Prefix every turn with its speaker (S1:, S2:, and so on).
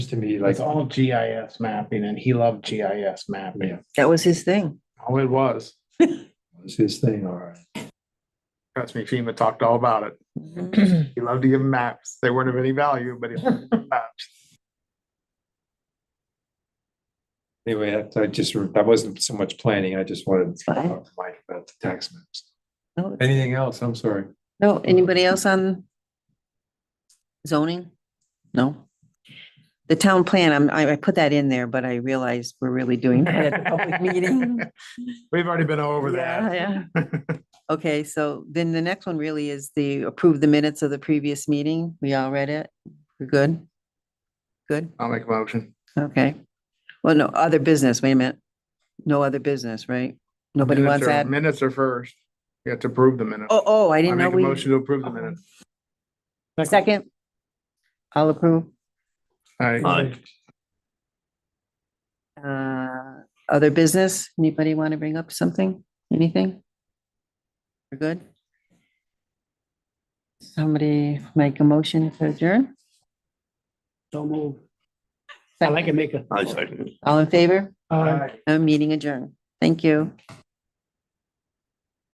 S1: seems to me like,
S2: It's all GIS mapping and he loved GIS mapping.
S3: That was his thing.
S2: Oh, it was.
S1: it's his thing, all right.
S2: Trust me, FEMA talked all about it.
S3: Mm-hmm.
S2: He loved to give maps. They weren't of any value, but he loved to give maps.
S1: Anyway, that- I just, that wasn't so much planning, I just wanted to
S3: fine.
S1: talk to Mike about the tax maps.
S3: No, it's-
S1: Anything else? I'm sorry.
S3: No, anybody else on zoning? No? The town plan, I'm, I, I put that in there, but I realized we're really doing that at the public meeting.
S2: We've already been over that.
S3: Yeah, yeah. Okay, so then the next one really is the approve the minutes of the previous meeting. We all read it. We're good? Good,
S2: I'll make a motion.
S3: okay. Well, no, other business, wait a minute. No other business, right? Nobody
S2: Minutes
S3: wants
S2: are-
S3: that?
S2: Minutes are first. You have to approve the minutes.
S3: Oh, oh, I
S2: I
S3: didn't know
S2: make a
S3: we.
S2: motion to approve the minutes.
S3: Second. I'll approve.
S2: I,
S3: Uh, other business? Anybody want to bring up something? Anything? We're good? Somebody make a motion to adjourn?
S4: So move. I like to make a.
S5: I second.
S3: All in favor?
S4: Aye.
S3: i meeting adjourned. Thank you.